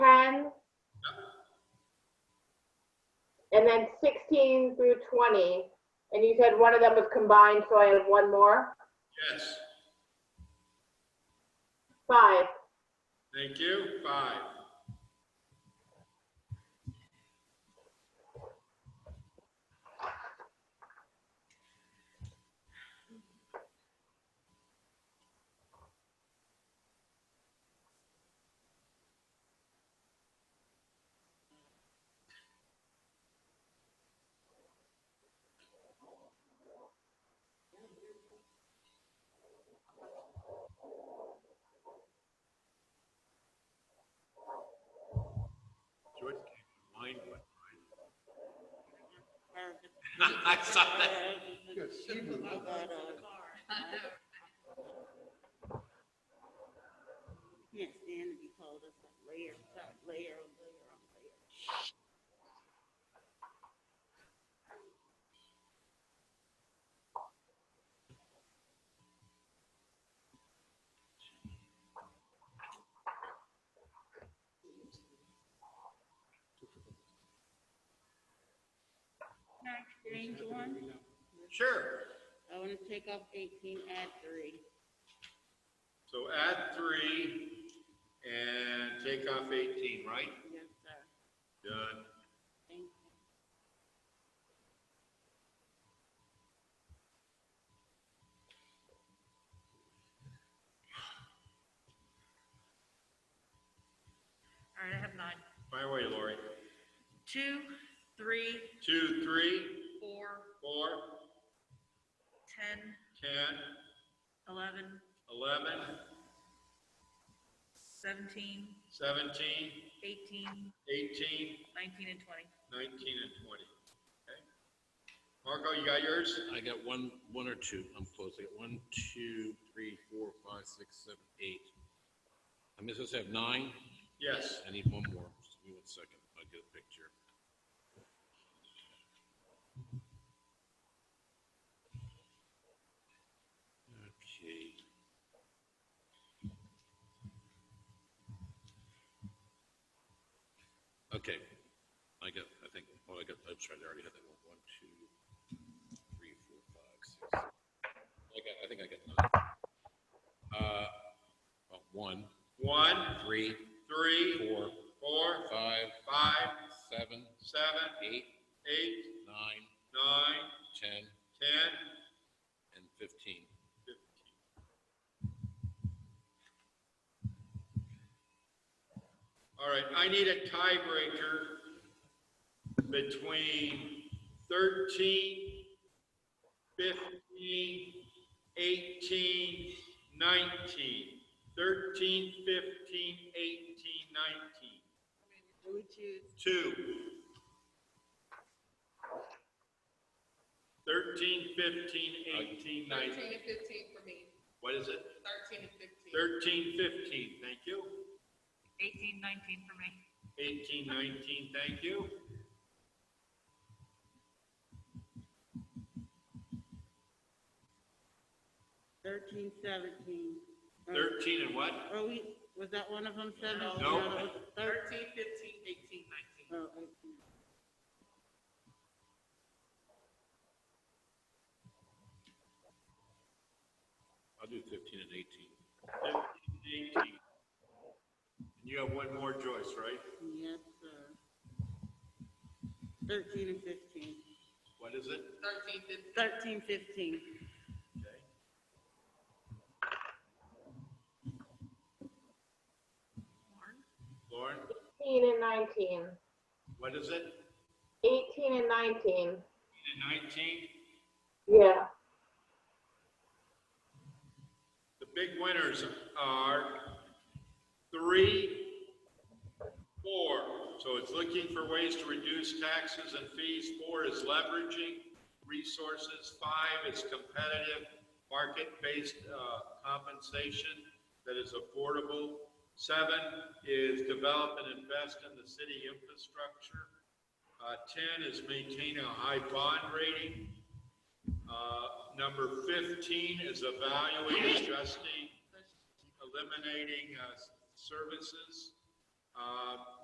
then 16 through 20, and you said one of them was combined, so I have one more. Yes, Five. thank you. Five. George came to mind one time. I saw that. Can't stand to be told it's like layer, upon layer, on layer, on layer. Can I change one? Sure. I want to take off eighteen, add three. So add three and take off 18, right? Yes, sir. Done. Thank you. All right, I have nine. By the way, Lori. Two, three, Two, three, four, four, ten, 10, eleven, 11, seventeen, 17, eighteen, 18, nineteen, and twenty. 19, and 20. Okay. Marco, you got yours? I got one, one or two. I'm close. I got one, two, three, four, five, six, seven, eight. I'm supposed to have nine. Yes. I need one more. Just give me one second. I'll get a picture. Okay. Okay. I got, I think, oh, I got, I'm sorry, I already had that one. One, two, three, four, five, six. seven. I got, I think I got nine. Uh, well, one, One, three, three, four, four, five, five, seven, seven, eight, eight, nine, nine, ten, 10, and fifteen. All right, I need a tiebreaker between 13, 15, 18, 19. 13, 15, 18, Who would 19. 2. choose? 13, 15, 13 18, 19. and 15 for me, What is it? 13 and 15. 13, 15, thank you. Eighteen, nineteen for me. 18, 19, thank you. Thirteen, seventeen. Or- 13 and what? Or we, was that one of them seven? No. No. that was thirteen. 13, 15, 18, 19. Oh, eighteen. I'll do fifteen and eighteen. 15, 18. And you have one more choice, right? Yes, sir. Thirteen and fifteen. What is it? 13, 15. Thirteen, fifteen. Okay. Lauren, 18 and 19. what is it? 18 and 19. 18 and 19? Yeah. The big winners are three, four. So it's looking for ways to reduce taxes and fees. Four is leveraging resources. Five is competitive, market-based uh, compensation that is affordable. Seven is develop and invest in the city infrastructure. Uh, 10 is maintain a high bond rating. Uh, Number 15 is evaluate, adjusting, eliminating uh, services. Uh,